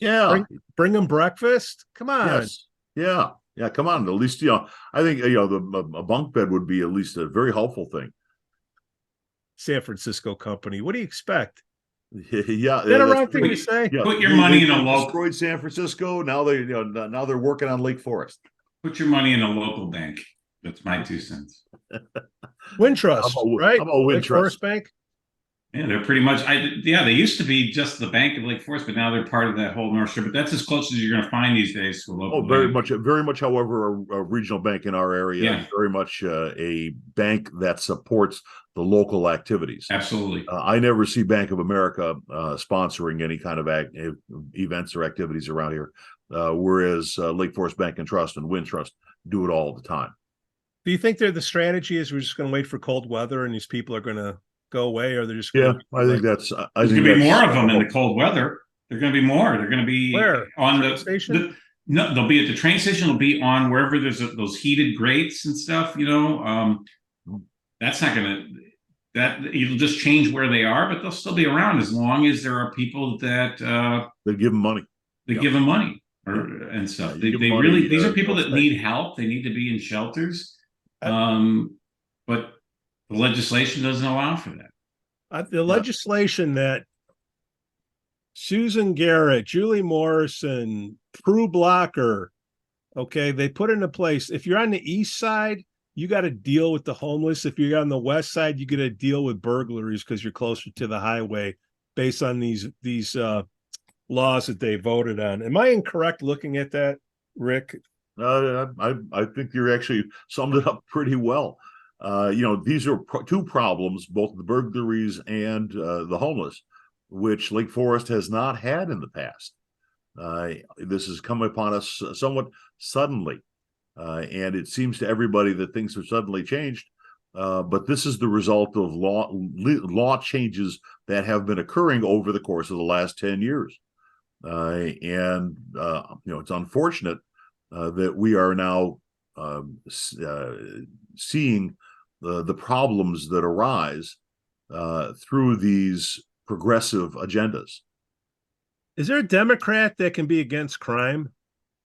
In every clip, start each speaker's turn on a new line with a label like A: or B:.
A: Yeah,
B: Bring, bring them breakfast. Come on.
A: yes, yeah, yeah. Come on, at least you know. I think you know the a a bunk bed would be at least a very helpful thing.
B: San Francisco company. What do you expect?
A: yeah, yeah, Uh,
B: Is that a
A: that's-
B: wrong thing to
C: Wait,
B: say?
A: yeah,
C: Put your
A: they- they
C: money in a local-
A: Destroyed San Francisco. Now they you know, now they're working on Lake Forest.
C: Put your money in a local bank. That's my two cents.
B: Wintrust,
A: How about-
B: right?
A: How about Wind
B: Like Forest
A: Trust?
B: Bank.
C: Yeah, they're pretty much. I yeah, they used to be just the Bank of Lake Forest, but now they're part of that whole North Shore. But that's as close as you're going to find these days to a local.
A: Oh, very much,
C: bank.
A: very much. However, a, a regional bank in our area,
C: Yeah.
A: very much uh, a bank that supports the local activities.
C: Absolutely.
A: Uh, I never see Bank of America uh, sponsoring any kind of act, ev- events or activities around here, uh, whereas uh, Lake Forest Bank and Trust and Wind Trust do it all the time.
B: Do you think that the strategy is we're just going to wait for cold weather and these people are going to go away, or they're just
A: Yeah,
B: gonna-
A: I think that's. I I
C: There's
A: think
C: going to be
A: that's-
C: more of them in the cold weather. There're going to be more. They're going to be
B: Where?
C: on the
B: station?
C: the- No, they'll be at the train station. They'll be on wherever there's a- those heated grates and stuff. You know, um, that's not gonna that it'll just change where they are, but they'll still be around as long as there are people that uh,
A: They give them money.
C: that
A: Yeah.
C: give them money or and stuff.
A: Yeah,
C: They,
A: you give
C: they
A: money,
C: really these
A: uh,
C: are people that
A: they'll
C: need help. They need to be in shelters,
B: I-
C: um, but the legislation doesn't allow for that.
B: Uh, the legislation that Susan Garrett, Julie Morrison, Prue Blocker, okay, they put into place. If you're on the east side, you got to deal with the homeless. If you're on the west side, you got to deal with burglaries because you're closer to the highway. Based on these these uh, laws that they voted on, am I incorrect looking at that, Rick?
A: Uh, I I think you're actually summed it up pretty well. Uh, you know, these are pro- two problems, both the burglaries and uh, the homeless, which Lake Forest has not had in the past. Uh, this has come upon us somewhat suddenly, uh, and it seems to everybody that things have suddenly changed. Uh, but this is the result of law li- law changes that have been occurring over the course of the last ten years, uh, and uh, you know it's unfortunate uh, that we are now um, s- uh, seeing the, the problems that arise uh, through these progressive agendas.
B: Is there a Democrat that can be against crime?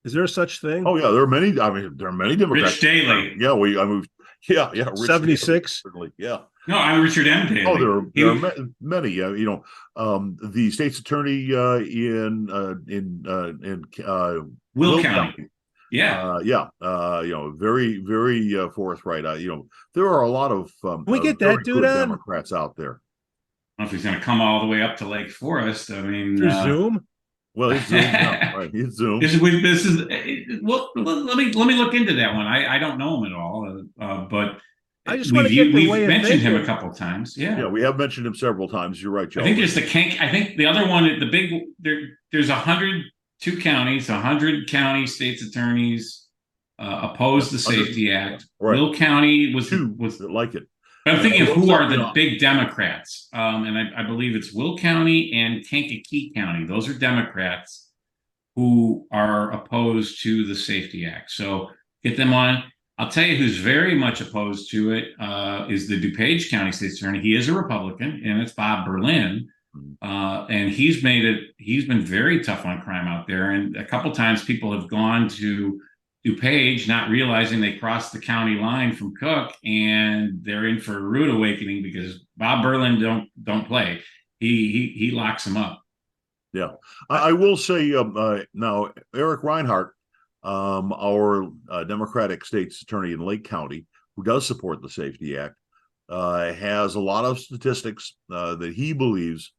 B: Is there such thing?
A: Oh yeah, there are many. I mean, there are many Democrats.
C: Rich Daley.
A: Yeah, we. I mean, yeah, yeah. Rich Daley,
B: 76?
A: Certainly, yeah.
C: No, I'm Richard M. Daley.
A: Oh, there
B: uh,
A: are,
C: He
A: there are
C: was-
A: ma- many. Uh, you know, um, the state's attorney uh, in uh, in uh, in uh,
C: Will County. Yeah.
A: Uh, yeah, uh, you know, very, very uh, forthright. Uh, you know, there are a lot of um,
B: Can we
A: uh,
B: get that
A: very
B: dude
A: good
B: on?
A: Democrats out there.
C: I don't know if he's going to come all the way up to Lake Forest. I mean,
B: Through
C: uh,
B: Zoom?
A: Well, it's Zoom, yeah, right? It's Zoom.
C: this is we- this is eh, well. Let let me let me look into that one. I I don't know him at all, uh, uh, but
B: I just
C: we've
B: wanna get the
C: u- we've
B: way of
C: mentioned him a
B: thinking.
C: couple times. Yeah.
A: yeah, we have mentioned him several times. You're right, Joe.
C: I think there's the Kank. I think the other one, the big there. There's a hundred two counties, a hundred county states attorneys uh, opposed the
A: Hundred-
C: Safety Act.
A: right.
C: Will County was
A: Two
C: was
A: that like it.
C: But I'm thinking of who
A: Those
C: are
A: are
C: the
A: not-
C: big Democrats, um, and I, I believe it's Will County and Kankakee County. Those are Democrats who are opposed to the Safety Act. So get them on. I'll tell you who's very much opposed to it uh, is the DuPage County State's Attorney. He is a Republican, and it's Bob Berlin, uh, and he's made it. He's been very tough on crime out there, and a couple times people have gone to DuPage, not realizing they crossed the county line from Cook, and they're in for a rude awakening because Bob Berlin don't don't play. He he he locks them up.
A: I, I will say um, uh, now, Eric Reinhart, um, our uh, Democratic state's attorney in Lake County, who does support the Safety Act, uh, has a lot of statistics uh, that he believes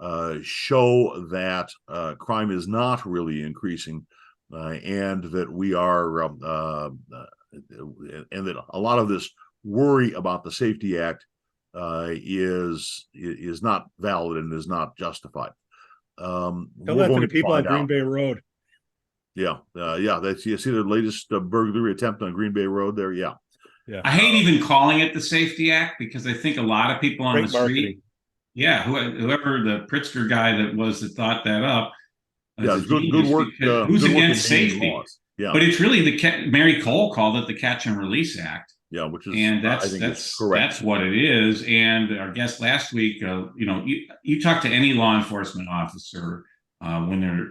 A: uh, show that uh, crime is not really increasing, uh, and that we are, um, uh, uh, and that a lot of this worry about the Safety Act uh, is is not valid and is not justified. Um,
B: Don't
A: we're
B: let
A: going
B: the
A: to
B: people on
A: find out.
B: Green Bay Road
A: Yeah, uh, yeah. That's you see the latest uh, burglary attempt on Green Bay Road there. Yeah,
C: I hate
A: Oh.
C: even calling it the Safety Act because I think a lot of people on
B: Great
C: the street, yeah, who- whoever the Pritzker guy that was that thought that up, is
A: yeah.
C: a
A: it's Good, good
C: genius
A: work.
C: because
A: uh,
C: who's
A: good work in
C: against
A: naming
C: safety?
A: laws. Yeah,
C: But it's really the ca- Mary Cole called it the Catch and Release Act.
A: yeah. Which is
C: and
A: I
C: that's
A: think
C: that's
A: is correct.
C: that's what it is. And our guest last week, uh, you know, you you talk to any law enforcement officer uh, when they're